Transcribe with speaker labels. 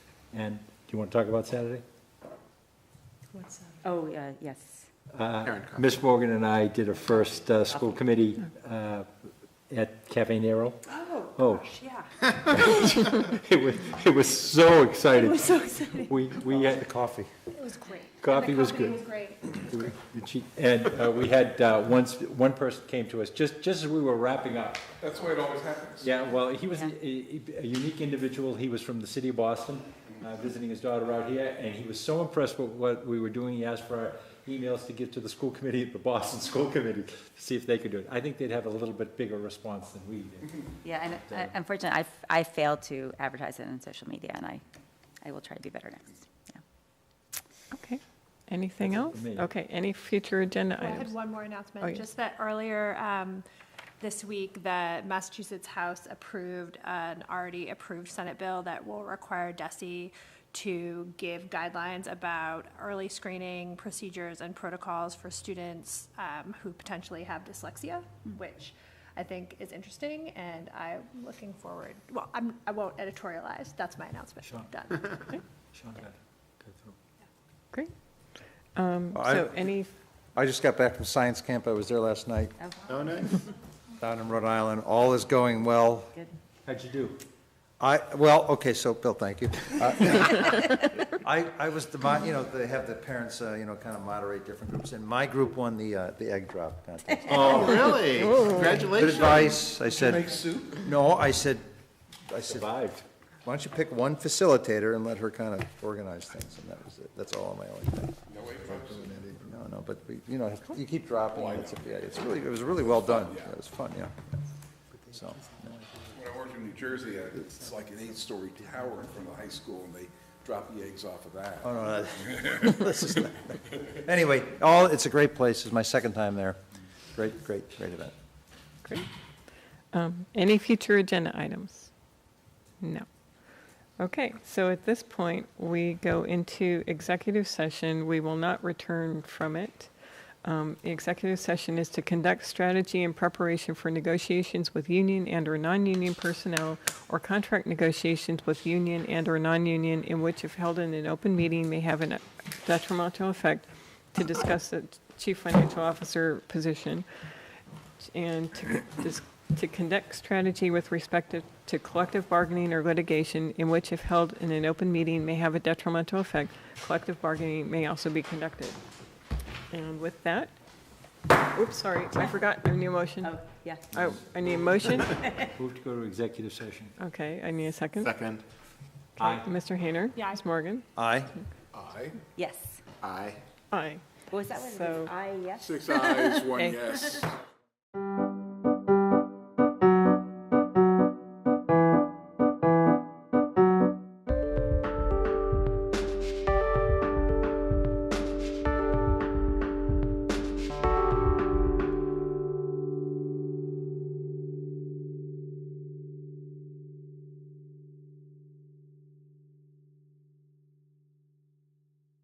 Speaker 1: And do you want to talk about Saturday?
Speaker 2: What's that?
Speaker 3: Oh, uh, yes.
Speaker 4: Karen Cox.
Speaker 1: Miss Morgan and I did a first uh, school committee uh, at Cafe Nero.
Speaker 3: Oh,
Speaker 1: Oh.
Speaker 3: yeah.
Speaker 1: It was, it was so
Speaker 3: It
Speaker 1: exciting.
Speaker 3: was so exciting.
Speaker 1: We, we had
Speaker 5: coffee.
Speaker 2: It was great. And the
Speaker 1: Coffee was
Speaker 2: company
Speaker 1: good.
Speaker 2: great.
Speaker 1: And she- And uh, we had, uh, once, one person came to us, just, just as we were wrapping up.
Speaker 4: That's the way it always happens.
Speaker 1: Yeah, well, he was a a- a unique individual. He was from the city of Boston, uh, visiting his daughter out here, and he was so impressed with what we were doing, he asked for our emails to give to the school committee, the Boston School Committee, to see if they could do it. I think they'd have a little bit bigger response than we did.
Speaker 3: Yeah, and uh, unfortunately, I f- I failed to advertise it on social media, and I, I will try to do better next. Yeah.
Speaker 6: Okay, anything else?
Speaker 1: for me.
Speaker 6: Okay, any future agenda
Speaker 2: Well, I had
Speaker 6: items?
Speaker 2: one more
Speaker 6: Oh,
Speaker 2: announcement,
Speaker 6: yeah.
Speaker 2: just that earlier um, this week, the Massachusetts House approved an already approved Senate bill that will require DESI E to give guidelines about early screening procedures and protocols for students um, who potentially have dyslexia, which I think is interesting, and I'm looking forward, well, I'm, I won't editorialize, that's my announcement,
Speaker 1: Sure.
Speaker 2: done.
Speaker 1: Sean, go ahead. Go through.
Speaker 6: Great. Um,
Speaker 5: I-
Speaker 6: So any,
Speaker 5: I just got back from science camp. I was there last night
Speaker 4: Oh, nice.
Speaker 5: down in Rhode Island. All is going well.
Speaker 3: Good.
Speaker 1: How'd you do?
Speaker 5: I, well, okay, so, Bill, thank you. Uh, I, I was, the mo- you know, they have the parents, uh, you know, kind of moderate different groups, and my group won the, uh, the egg drop contest.
Speaker 4: Oh, really?
Speaker 5: Good
Speaker 4: Congratulations.
Speaker 5: advice, I
Speaker 4: Did you make
Speaker 5: said,
Speaker 4: soup?
Speaker 5: no, I said, I said, why
Speaker 1: Survived.
Speaker 5: don't you pick one facilitator and let her kind of organize things, and that was it, that's all my only thing.
Speaker 4: No egg drop soup.
Speaker 5: No, no, but, we- you know, you keep dropping, it's, yeah, it's really, it was really well done, it was fun, yeah. So,
Speaker 4: When I worked in New Jersey, uh, it's like an eight-story tower in front of the high school, and they drop the eggs off of that.
Speaker 5: oh, no, that- this is, not- anyway, all, it's a great place, it's my second time there, great, great, great event.
Speaker 6: great. Um, Any future agenda items? No. Okay, so at this point, we go into executive session. We will not return from it. Um, The executive session is to conduct strategy in preparation for negotiations with union and/or non-union personnel or contract negotiations with union and/or non-union in which if held in an open meeting may have a detrimental effect to discuss the chief financial officer position and to dis- to conduct strategy with respect to- to collective bargaining or litigation in which if held in an open meeting may have a detrimental effect. Collective bargaining may also be conducted. And with that, oops, sorry, I forgot, I need a motion.
Speaker 3: Oh, yeah.
Speaker 6: Oh, I need a motion?
Speaker 1: Move to go to executive session.
Speaker 6: Okay, I need a second. Okay,
Speaker 4: Second.
Speaker 1: Aye.
Speaker 6: Mr. Hayner?
Speaker 2: Yeah.
Speaker 6: Ms. Morgan?
Speaker 5: Aye,
Speaker 4: Aye.
Speaker 3: Yes.
Speaker 4: Aye.
Speaker 6: Aye.
Speaker 3: What was that one?
Speaker 6: So-
Speaker 3: I, E yes.
Speaker 4: Six ayes, one
Speaker 6: Okay.
Speaker 4: yes.